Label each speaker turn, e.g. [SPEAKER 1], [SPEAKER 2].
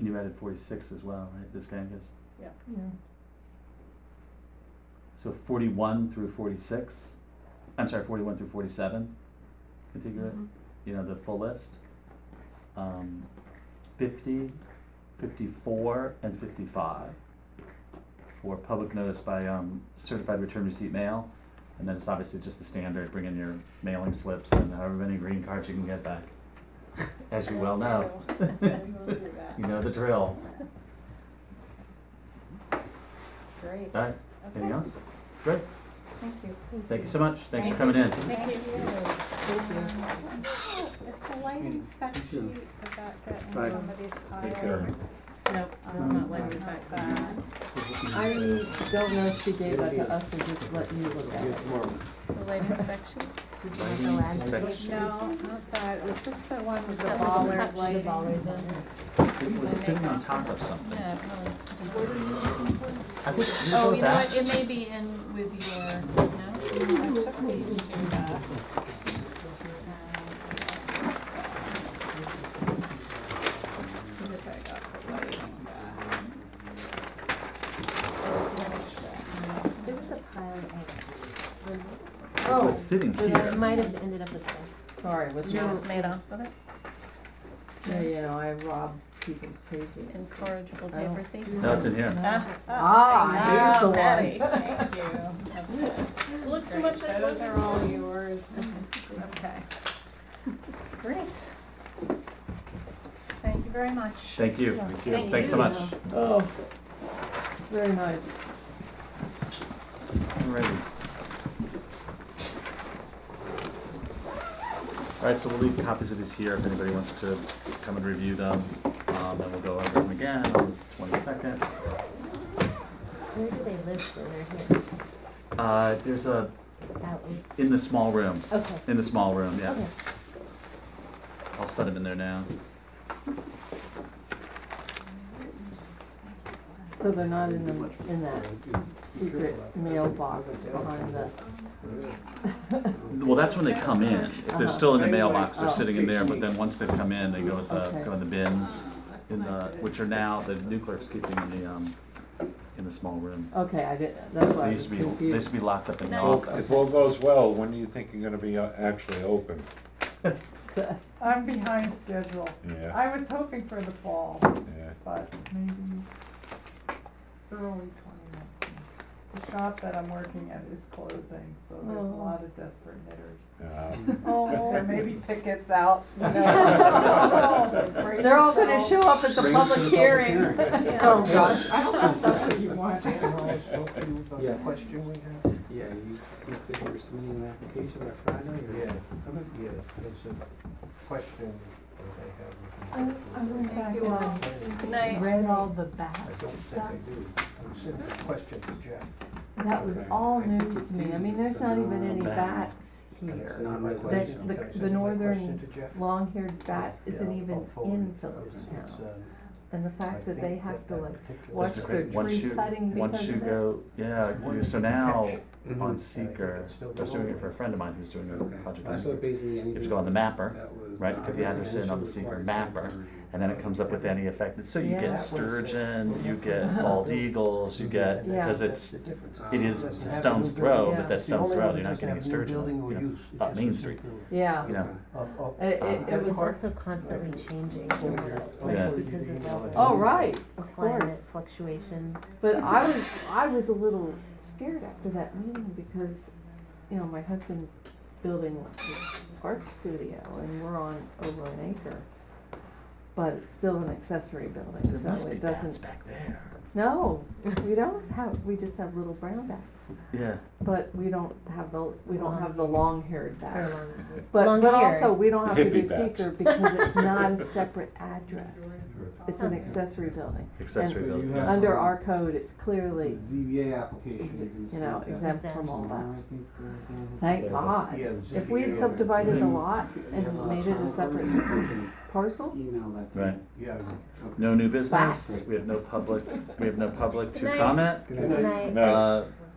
[SPEAKER 1] You added forty-six as well, right, this guy gets,
[SPEAKER 2] Yeah.
[SPEAKER 1] so forty-one through forty-six, I'm sorry, forty-one through forty-seven, contiguous,
[SPEAKER 2] Mhm.
[SPEAKER 1] you know, the full list. Um, fifty, fifty-four, and fifty-five for public notice by, um, certified return receipt mail. And then it's obviously just the standard, bring in your mailing slips and however many green cards you can get back, as you well know.
[SPEAKER 2] We will do that.
[SPEAKER 1] You know the drill.
[SPEAKER 2] Great.
[SPEAKER 1] All right, anything
[SPEAKER 2] Okay.
[SPEAKER 1] else? Great,
[SPEAKER 2] Thank you.
[SPEAKER 1] thank you so much. Thanks for
[SPEAKER 2] Thank
[SPEAKER 1] coming in.
[SPEAKER 2] Thank you.
[SPEAKER 3] Thank
[SPEAKER 2] Um, Is the lighting spec
[SPEAKER 4] Thank you.
[SPEAKER 2] sheet about getting
[SPEAKER 4] Bye.
[SPEAKER 2] somebody's car?
[SPEAKER 5] Take care.
[SPEAKER 3] Nope, that's
[SPEAKER 2] Um,
[SPEAKER 3] not lighting
[SPEAKER 2] not
[SPEAKER 3] back.
[SPEAKER 2] bad.
[SPEAKER 3] I don't know if she gave that to us or just let you look at it.
[SPEAKER 2] The lighting spec sheet? No, not that, it was just the one with the
[SPEAKER 3] That was a
[SPEAKER 2] baller
[SPEAKER 3] touch, the
[SPEAKER 2] lighting.
[SPEAKER 3] bollards on it.
[SPEAKER 1] It was sitting on top of something.
[SPEAKER 3] Yeah, it was.
[SPEAKER 1] I think these
[SPEAKER 3] Oh,
[SPEAKER 1] are
[SPEAKER 3] you know
[SPEAKER 1] back.
[SPEAKER 3] what, it may be in with your, no?
[SPEAKER 2] I took these two back. Cause if I got the lighting back.
[SPEAKER 6] This is a pile of eggs.
[SPEAKER 1] It
[SPEAKER 3] oh.
[SPEAKER 1] was sitting
[SPEAKER 6] But it
[SPEAKER 1] here.
[SPEAKER 6] might have ended up this way.
[SPEAKER 3] Sorry, was
[SPEAKER 2] No,
[SPEAKER 3] your,
[SPEAKER 2] made off of it,
[SPEAKER 3] yeah, you know, I robbed people's pages.
[SPEAKER 2] incorrigible
[SPEAKER 3] I don't-
[SPEAKER 2] paper thief.
[SPEAKER 1] No, it's in here.
[SPEAKER 2] Ah,
[SPEAKER 3] Ah, here's the
[SPEAKER 2] ah, Patty,
[SPEAKER 3] one.
[SPEAKER 2] Thank you. Okay.
[SPEAKER 3] Looks too
[SPEAKER 2] Great,
[SPEAKER 3] much like
[SPEAKER 2] Those
[SPEAKER 3] one.
[SPEAKER 2] are all yours. Okay. Great. Thank you very much.
[SPEAKER 1] Thank you,
[SPEAKER 3] Yeah.
[SPEAKER 1] thank you.
[SPEAKER 2] Thank
[SPEAKER 1] Thanks so
[SPEAKER 2] you.
[SPEAKER 1] much.
[SPEAKER 3] Oh, very nice.
[SPEAKER 1] Alrighty. Alright, so we'll leave copies of these here if anybody wants to come and review them. Um, and we'll go over them again on the twenty-second.
[SPEAKER 6] Where do they live when they're
[SPEAKER 1] Uh, there's a,
[SPEAKER 6] here? Out in,
[SPEAKER 1] in the small room,
[SPEAKER 6] okay,
[SPEAKER 1] in the small room, yeah.
[SPEAKER 6] okay.
[SPEAKER 1] I'll set them in there now.
[SPEAKER 3] So they're not in the, in that secret mailbox behind the,
[SPEAKER 1] Well, that's when they come in. If they're
[SPEAKER 3] Uh-huh.
[SPEAKER 1] still in the mailbox, they're
[SPEAKER 3] Oh.
[SPEAKER 1] sitting in there, but then once they've come in, they go with the,
[SPEAKER 3] Okay.
[SPEAKER 1] go in the bins, in the, which are now, the new clerk's keeping in the, um, in the small room.
[SPEAKER 3] okay, I did, that's why
[SPEAKER 1] They
[SPEAKER 3] I was
[SPEAKER 1] used to be, they used
[SPEAKER 3] confused.
[SPEAKER 1] to be locked up in the
[SPEAKER 2] No.
[SPEAKER 1] office.
[SPEAKER 5] If all goes well, when do you think you're gonna be uh, actually open?
[SPEAKER 7] I'm behind schedule.
[SPEAKER 5] Yeah,
[SPEAKER 7] I was hoping for the fall,
[SPEAKER 5] yeah.
[SPEAKER 7] but maybe early twenty nineteen. The shop that I'm working at is closing, so there's a
[SPEAKER 3] Oh.
[SPEAKER 7] lot of desperate knitters.
[SPEAKER 5] Uh,
[SPEAKER 7] There
[SPEAKER 3] Oh,
[SPEAKER 7] may be pickets out, you know.
[SPEAKER 3] Yeah.
[SPEAKER 7] so brace
[SPEAKER 3] They're all gonna
[SPEAKER 7] yourselves.
[SPEAKER 3] show up at the public hearing.
[SPEAKER 7] Yeah.
[SPEAKER 3] Oh, gosh.
[SPEAKER 8] I don't know if that's what you want, Anna, the
[SPEAKER 4] Yes.
[SPEAKER 8] question we have.
[SPEAKER 4] Yeah, you, you said you were submitting an application by Friday, or? Okay.
[SPEAKER 8] Yeah, it's a question that I have.
[SPEAKER 3] Thank you all.
[SPEAKER 2] Good night.
[SPEAKER 3] Read all the back
[SPEAKER 8] I don't think
[SPEAKER 3] stuff.
[SPEAKER 8] I do. I'm sending a question to Jeff.
[SPEAKER 3] That was all news to me. I mean, there's not even any
[SPEAKER 1] Bats.
[SPEAKER 3] bats here.
[SPEAKER 8] Not my
[SPEAKER 4] The-
[SPEAKER 8] question.
[SPEAKER 3] the-
[SPEAKER 8] Can I
[SPEAKER 3] the
[SPEAKER 8] send my
[SPEAKER 3] northern
[SPEAKER 8] question to Jeff?
[SPEAKER 3] Long-haired bat isn't
[SPEAKER 8] Yeah, I'll
[SPEAKER 3] even
[SPEAKER 8] forward
[SPEAKER 3] in
[SPEAKER 8] it. It's,
[SPEAKER 3] Phillipsstown.
[SPEAKER 8] um,
[SPEAKER 3] And the
[SPEAKER 8] I
[SPEAKER 3] fact that they
[SPEAKER 8] think
[SPEAKER 3] have to
[SPEAKER 8] that
[SPEAKER 3] like
[SPEAKER 8] particular-
[SPEAKER 3] watch
[SPEAKER 1] That's a
[SPEAKER 3] their
[SPEAKER 1] great- once
[SPEAKER 3] tree
[SPEAKER 1] you-
[SPEAKER 3] cutting
[SPEAKER 1] Once
[SPEAKER 3] because
[SPEAKER 1] you
[SPEAKER 3] of that.
[SPEAKER 1] go, yeah,
[SPEAKER 8] One
[SPEAKER 1] you-
[SPEAKER 8] that
[SPEAKER 1] so
[SPEAKER 8] you
[SPEAKER 1] now,
[SPEAKER 8] catch. Mm-hmm.
[SPEAKER 1] on
[SPEAKER 4] Mhm.
[SPEAKER 1] Seeker,
[SPEAKER 8] Still
[SPEAKER 1] I was doing it
[SPEAKER 8] below.
[SPEAKER 1] for a friend of mine who's doing a project on
[SPEAKER 4] That's what basically
[SPEAKER 1] You have to go on the mapper,
[SPEAKER 4] That was
[SPEAKER 1] right,
[SPEAKER 4] not
[SPEAKER 1] put the address in on the
[SPEAKER 4] residential
[SPEAKER 1] secret
[SPEAKER 4] required
[SPEAKER 1] mapper,
[SPEAKER 4] subdivision.
[SPEAKER 1] and then it comes up with any effect. So you
[SPEAKER 3] Yeah.
[SPEAKER 1] get sturgeon, you get bald eagles, you get,
[SPEAKER 3] Yeah.
[SPEAKER 1] because
[SPEAKER 8] That's
[SPEAKER 1] it's,
[SPEAKER 8] the difference.
[SPEAKER 1] it is
[SPEAKER 8] Doesn't
[SPEAKER 1] a
[SPEAKER 8] have a
[SPEAKER 1] stone's
[SPEAKER 8] new
[SPEAKER 1] throw,
[SPEAKER 8] building.
[SPEAKER 3] Yeah.
[SPEAKER 1] but that
[SPEAKER 8] It's the
[SPEAKER 1] stone's
[SPEAKER 8] only
[SPEAKER 1] throw,
[SPEAKER 8] one
[SPEAKER 1] you're
[SPEAKER 8] that
[SPEAKER 1] not
[SPEAKER 8] doesn't
[SPEAKER 1] getting a
[SPEAKER 8] have new building or
[SPEAKER 1] sturgeon, you
[SPEAKER 8] use. It
[SPEAKER 1] up
[SPEAKER 8] just
[SPEAKER 1] Main
[SPEAKER 8] was
[SPEAKER 1] Street.
[SPEAKER 8] built.
[SPEAKER 3] Yeah,
[SPEAKER 1] know, you know.
[SPEAKER 8] Up- up-
[SPEAKER 3] it, it,
[SPEAKER 6] It
[SPEAKER 3] it
[SPEAKER 6] was
[SPEAKER 3] was,
[SPEAKER 6] also constantly changing,
[SPEAKER 1] Yeah.
[SPEAKER 6] like because of all the
[SPEAKER 3] oh, right, of course.
[SPEAKER 6] climate fluctuations.
[SPEAKER 3] But I was, I was a little scared after that meeting because, you know, my husband's building this art studio and we're on over an acre. But it's still an accessory building,
[SPEAKER 1] There
[SPEAKER 3] so
[SPEAKER 1] must be
[SPEAKER 3] it
[SPEAKER 1] bats
[SPEAKER 3] doesn't,
[SPEAKER 1] back there.
[SPEAKER 3] no, we don't have, we just have little brown bats.
[SPEAKER 1] Yeah,
[SPEAKER 3] But we don't have the, we don't have the long-haired
[SPEAKER 6] Or
[SPEAKER 3] bat.
[SPEAKER 6] long-
[SPEAKER 3] But, but
[SPEAKER 6] Long-haired.
[SPEAKER 3] also, we don't have to do
[SPEAKER 5] Hippie bats.
[SPEAKER 3] seeker because it's not a separate address. It's an accessory building.
[SPEAKER 1] accessory
[SPEAKER 4] And-
[SPEAKER 1] building,
[SPEAKER 4] You
[SPEAKER 1] yeah.
[SPEAKER 4] have-
[SPEAKER 3] Under our code, it's clearly
[SPEAKER 4] ZBA application.
[SPEAKER 3] Exi- you know, exempt from all that.
[SPEAKER 4] uh,
[SPEAKER 3] Thank
[SPEAKER 1] Yeah.
[SPEAKER 3] God.
[SPEAKER 8] Yeah, the
[SPEAKER 3] If we had
[SPEAKER 8] ZBA.
[SPEAKER 3] subdivided a lot and
[SPEAKER 4] Yeah.
[SPEAKER 3] made it a separate parcel,
[SPEAKER 4] Email that to
[SPEAKER 1] Right.
[SPEAKER 8] Yeah.
[SPEAKER 1] No new business,
[SPEAKER 3] Bats.
[SPEAKER 1] we have no public, we have no public
[SPEAKER 2] Good
[SPEAKER 1] to
[SPEAKER 2] night.
[SPEAKER 1] comment.
[SPEAKER 4] Good
[SPEAKER 6] Good
[SPEAKER 4] night.
[SPEAKER 6] night.
[SPEAKER 5] No,
[SPEAKER 1] Uh,